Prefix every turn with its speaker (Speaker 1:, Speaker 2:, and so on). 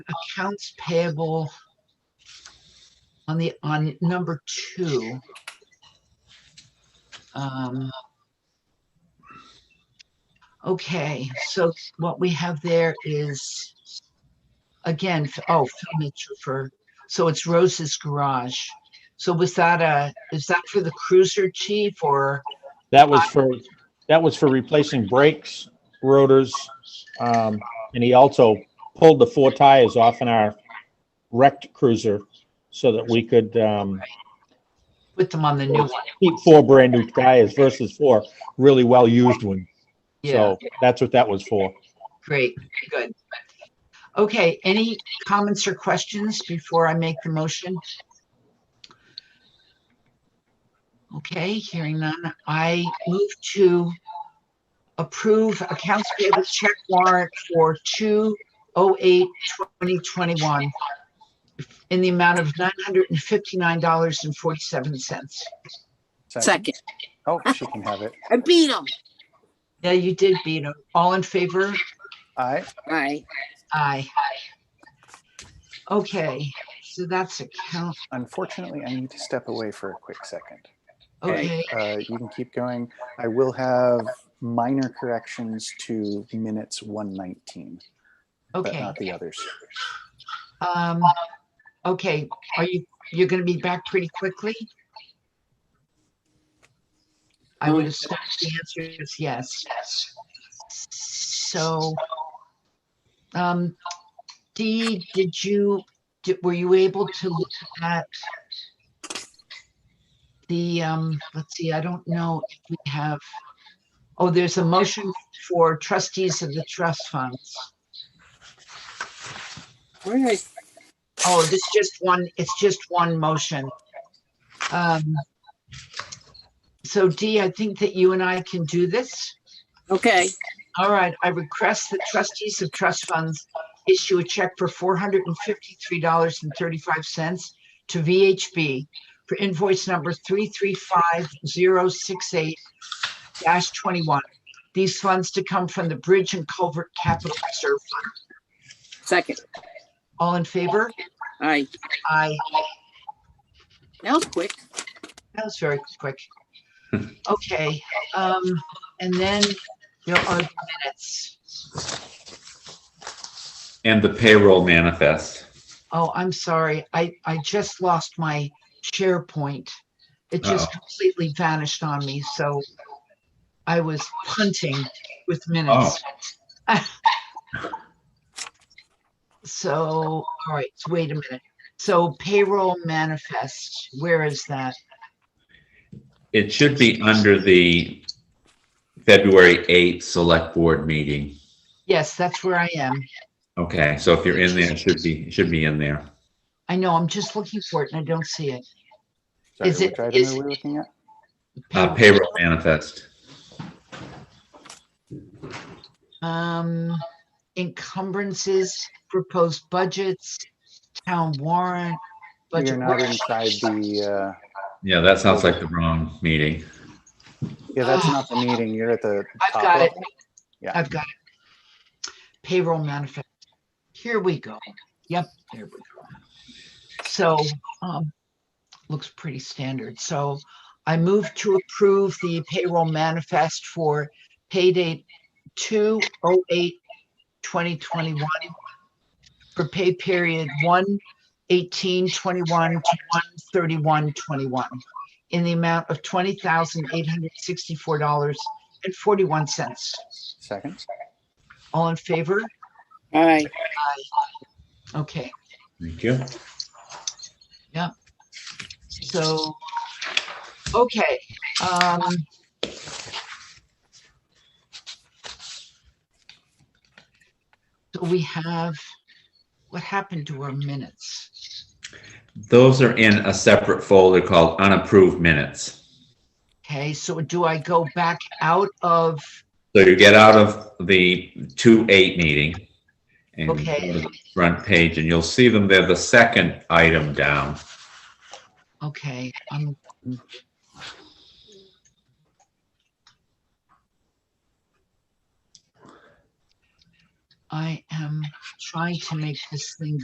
Speaker 1: accounts payable on the, on number two. Um, Okay, so what we have there is, again, f- oh, furniture for, so it's Rose's Garage. So was that a, is that for the cruiser chief or,
Speaker 2: That was for, that was for replacing brakes, rotors, um, and he also pulled the four tires off in our wrecked cruiser so that we could, um,
Speaker 1: put them on the new one?
Speaker 2: keep four brand new tires versus four really well-used ones.
Speaker 1: Yeah,
Speaker 2: So that's what that was for.
Speaker 1: great, good. Okay, any comments or questions before I make the motion? Okay, hearing none, I move to approve accounts payable check warrant for two oh eight twenty twenty-one in the amount of nine hundred and fifty-nine dollars and forty-seven cents.
Speaker 3: Second.
Speaker 4: Oh, she can have it.
Speaker 3: I beat him.
Speaker 1: Yeah, you did beat 'em. All in favor?
Speaker 4: Aye.
Speaker 3: Aye.
Speaker 1: Aye. Okay, so that's a count.
Speaker 4: Unfortunately, I need to step away for a quick second.
Speaker 1: Okay,
Speaker 4: Uh, you can keep going. I will have minor corrections to minutes 119, but
Speaker 1: okay.
Speaker 4: not the others.
Speaker 1: Um, okay, are you, you're gonna be back pretty quickly? I would assume the answer is yes. So, um, Dee, did you, did, were you able to look at the, um, let's see, I don't know if we have, oh, there's a motion for trustees of the trust funds.
Speaker 3: Where is,
Speaker 1: Oh, this just one, it's just one motion. Um, So Dee, I think that you and I can do this.
Speaker 3: okay,
Speaker 1: All right, I request that trustees of trust funds issue a check for four hundred and fifty-three dollars and thirty-five cents to VHB for invoice number three three five zero six eight twenty-one. These funds to come from the Bridge and Culvert Capital Reserve Fund.
Speaker 3: second.
Speaker 1: All in favor?
Speaker 3: Aye.
Speaker 1: Aye.
Speaker 3: That was quick.
Speaker 1: That was very quick. Okay, um, and then there are the minutes.
Speaker 5: And the payroll manifest.
Speaker 1: Oh, I'm sorry. I, I just lost my SharePoint. It just
Speaker 5: Uh-oh.
Speaker 1: completely vanished on me, so I was punting with minutes.
Speaker 5: Oh.
Speaker 1: So, all right, so wait a minute. So payroll manifest, where is that?
Speaker 5: It should be under the February 8th Select Board meeting.
Speaker 1: Yes, that's where I am.
Speaker 5: Okay, so if you're in there, it should be, it should be in there.
Speaker 1: I know, I'm just looking for it and I don't see it.
Speaker 4: Sorry,
Speaker 1: Is it-
Speaker 4: which item
Speaker 1: is-
Speaker 4: are we looking at?
Speaker 5: Uh, Payroll manifest.
Speaker 1: Um, encumbrances, proposed budgets, town warrant,
Speaker 4: We are
Speaker 1: budget
Speaker 4: not
Speaker 1: workshop.
Speaker 4: inside the, uh,
Speaker 5: Yeah, that sounds like the wrong meeting.
Speaker 4: yeah, that's not the meeting. You're at the
Speaker 1: I've
Speaker 4: top
Speaker 1: got it.
Speaker 4: level. Yeah.
Speaker 1: I've got it. Payroll manifest. Here we go. Yep, there we go. So, um, looks pretty standard. So I move to approve the payroll manifest for pay date two oh eight twenty twenty-one for pay period one eighteen twenty-one to one thirty-one twenty-one in the amount of twenty thousand eight hundred sixty-four dollars and forty-one cents.
Speaker 4: Second.
Speaker 1: All in favor?
Speaker 3: Aye.
Speaker 1: Okay,
Speaker 5: Thank you.
Speaker 1: so, okay, um. So we have, what happened to our minutes?
Speaker 5: Those are in a separate folder called unapproved minutes.
Speaker 1: Okay, so do I go back out of,
Speaker 5: So you get out of the 2-8 meeting and go
Speaker 1: Okay.
Speaker 5: to the front page, and you'll see them. They're the second item down.
Speaker 1: okay, um. I am trying to make this thing